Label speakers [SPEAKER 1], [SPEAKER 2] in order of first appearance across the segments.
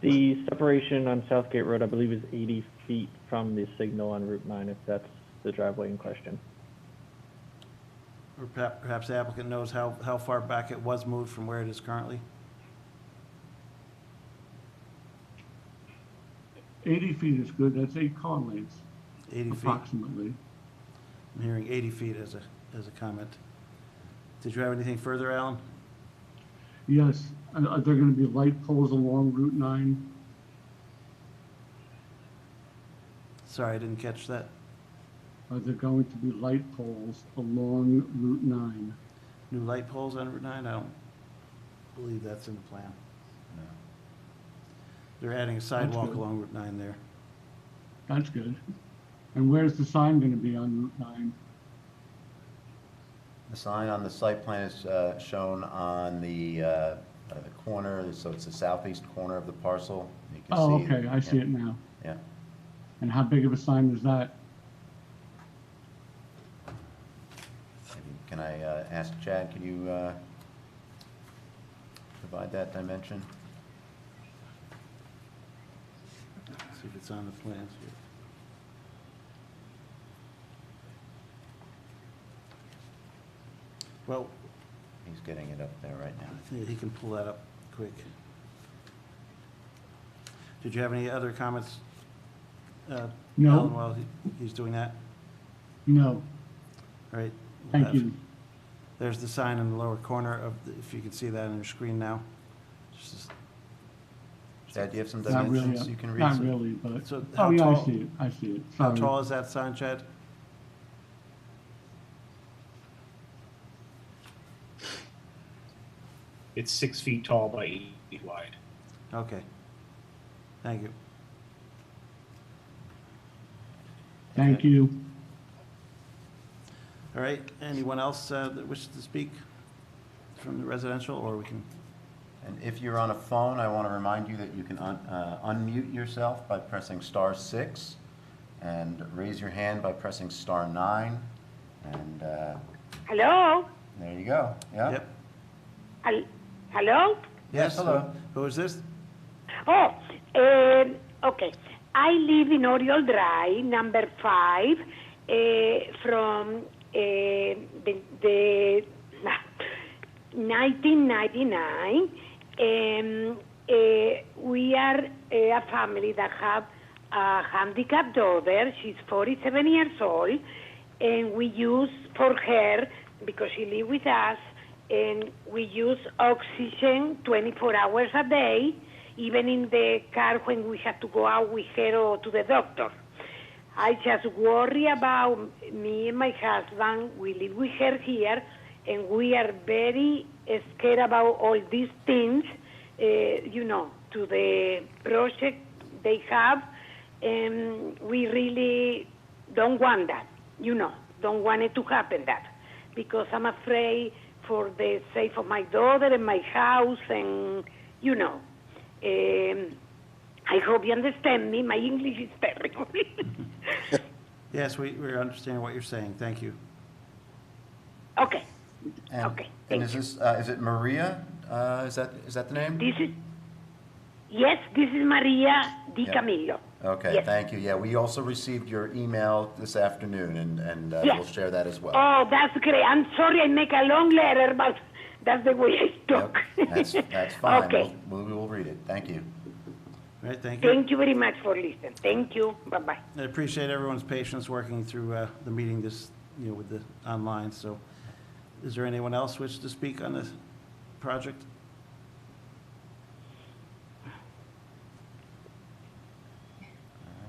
[SPEAKER 1] The separation on Southgate Road, I believe, is 80 feet from the signal on Route 9, if that's the driveway in question.
[SPEAKER 2] Or perhap- perhaps the applicant knows how, how far back it was moved from where it is currently?
[SPEAKER 3] 80 feet is good, that's eight car lengths
[SPEAKER 2] 80 feet? I'm
[SPEAKER 3] approximately.
[SPEAKER 2] hearing 80 feet as a, as a comment. Did you have anything further, Alan?
[SPEAKER 3] Yes, and are there going to be light poles along Route 9?
[SPEAKER 2] Sorry, I didn't catch that.
[SPEAKER 3] Are there going to be light poles along Route 9?
[SPEAKER 2] New light poles on Route 9? I don't believe that's in the plan. They're adding a sidewalk
[SPEAKER 3] good.
[SPEAKER 2] along Route 9 there.
[SPEAKER 3] That's good. And where's the sign going to be on Route 9?
[SPEAKER 4] The sign on the site plan is uh, shown on the, uh, uh, the corner, so it's the southeast corner of the parcel. You can
[SPEAKER 3] Oh,
[SPEAKER 4] see
[SPEAKER 3] okay, I see
[SPEAKER 4] yeah,
[SPEAKER 3] it now.
[SPEAKER 4] Yeah,
[SPEAKER 3] And how big of a sign is that?
[SPEAKER 4] Maybe- can I uh, ask Chad, could you uh, provide that dimension?
[SPEAKER 2] See if it's on the plans here. Well,
[SPEAKER 4] He's getting it up there right now.
[SPEAKER 2] I think he can pull that up quick. Did you have any other comments? uh,
[SPEAKER 3] No.
[SPEAKER 2] Alan, While he- he's doing that,
[SPEAKER 3] No,
[SPEAKER 2] all right? we'll
[SPEAKER 3] thank
[SPEAKER 2] have-
[SPEAKER 3] you.
[SPEAKER 2] There's the sign in the lower corner of, the- if you can see that on your screen now. Just-
[SPEAKER 4] Chad, do you have some
[SPEAKER 3] Not really,
[SPEAKER 4] dimensions you can read?
[SPEAKER 3] not
[SPEAKER 4] some-
[SPEAKER 3] really, but,
[SPEAKER 2] So how
[SPEAKER 3] oh, yeah, I
[SPEAKER 2] tall-
[SPEAKER 3] see it, I see it,
[SPEAKER 2] How
[SPEAKER 3] sorry.
[SPEAKER 2] tall is that sign, Chad?
[SPEAKER 5] It's six feet tall by eight feet wide.
[SPEAKER 2] Okay. Thank you.
[SPEAKER 3] Thank you.
[SPEAKER 2] All right, anyone else uh, that wishes to speak from the residential, or we can,
[SPEAKER 4] And if you're on a phone, I want to remind you that you can un- uh, unmute yourself by pressing star six, and raise your hand by pressing star nine, and uh,
[SPEAKER 6] Hello?
[SPEAKER 4] there you go. Yeah?
[SPEAKER 2] yep?
[SPEAKER 6] Hel- Hello?
[SPEAKER 4] Yes, hello.
[SPEAKER 2] Who is this?
[SPEAKER 6] Oh, um, okay. I live in Oriole Drive, number five, uh, from uh, the, the ah, 1999. Um, uh, we are uh, a family that have a handicapped daughter. She's 47 years old, and we use for her because she lives with us, and we use oxygen 24 hours a day, even in the car when we have to go out with her or to the doctor. I just worry about me and my husband. We live with her here, and we are very scared about all these things, uh, you know, to the project they have, and we really don't want that, you know, don't want it to happen that, because I'm afraid for the sake of my daughter and my house, and you know. Um, I hope you understand me. My English is terrible.
[SPEAKER 2] Yes, we, we understand what you're saying, thank you.
[SPEAKER 6] Okay,
[SPEAKER 4] And-
[SPEAKER 6] Okay,
[SPEAKER 4] And
[SPEAKER 6] thank
[SPEAKER 4] is this, uh, is it Maria? Uh, Is that, is that the name?
[SPEAKER 6] this is, yes, this is Maria Di
[SPEAKER 4] Yeah. Uh,
[SPEAKER 6] Camillo.
[SPEAKER 4] Okay,
[SPEAKER 6] Yes.
[SPEAKER 4] thank you. Yeah, we also received your email this afternoon, and, and uh,
[SPEAKER 6] Yeah.
[SPEAKER 4] we'll share that as well.
[SPEAKER 6] Oh, that's great. I'm sorry I make a long letter, but that's the way I
[SPEAKER 4] Yep,
[SPEAKER 6] talk.
[SPEAKER 4] That's, that's fine.
[SPEAKER 6] Okay,
[SPEAKER 4] We'll- We will read it. Thank you.
[SPEAKER 2] All right, thank you.
[SPEAKER 6] thank you very much for listening. Thank you. Bye-bye.
[SPEAKER 2] I appreciate everyone's patience working through uh, the meeting this, you know, with the online, so. Is there anyone else wish to speak on this project?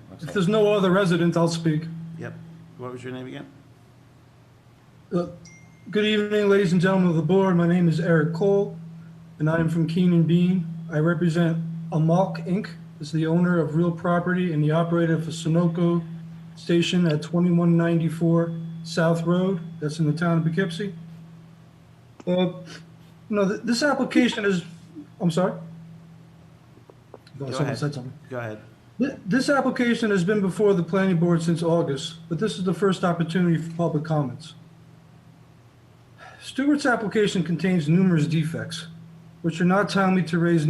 [SPEAKER 4] Looks
[SPEAKER 7] If
[SPEAKER 4] like-
[SPEAKER 7] there's no other resident, I'll speak.
[SPEAKER 2] Yep, what was your name again?
[SPEAKER 7] Uh, Good evening, ladies and gentlemen of the board. My name is Eric Cole, and I am from Keenan Bean. I represent Amalk Inc. as the owner of real property and the operator of Sunoco Station at 2194 South Road. That's in the town of Poughkeepsie. Uh, No, th- this application is, I'm sorry?
[SPEAKER 2] Go
[SPEAKER 7] No, Oh, someone
[SPEAKER 2] ahead.
[SPEAKER 7] said something.
[SPEAKER 2] Go ahead.
[SPEAKER 7] Th- This application has been before the planning board since August, but this is the first opportunity for public comments. Stewart's application contains numerous defects, which are not timely to raise